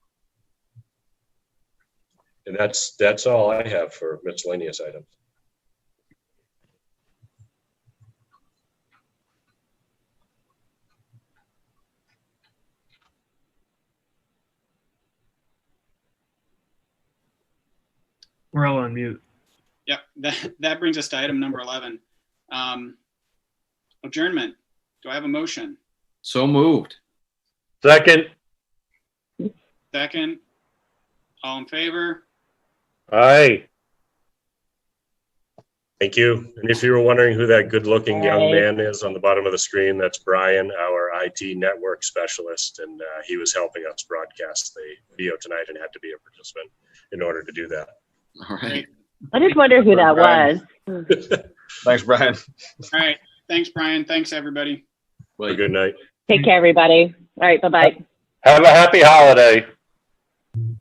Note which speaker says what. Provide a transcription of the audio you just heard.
Speaker 1: And that's, that's all I have for miscellaneous items.
Speaker 2: We're all on mute.
Speaker 3: Yep, that, that brings us to item number 11. Um, Adjournment. Do I have a motion?
Speaker 4: So moved.
Speaker 5: Second,
Speaker 3: Second? All in favor?
Speaker 5: aye.
Speaker 1: Thank you. And if you were wondering who that good-looking young man is on the bottom of the screen, that's Brian, our IT network specialist, and uh, he was helping us broadcast the video tonight and had to be a participant in order to do that.
Speaker 4: All right.
Speaker 6: I just wonder who that
Speaker 7: Right.
Speaker 6: was.
Speaker 7: Thanks, Brian.
Speaker 3: All right. Thanks, Brian. Thanks, everybody.
Speaker 1: Have a
Speaker 4: Well,
Speaker 1: good night.
Speaker 6: Take care, everybody. All right, bye bye.
Speaker 5: Have a happy holiday.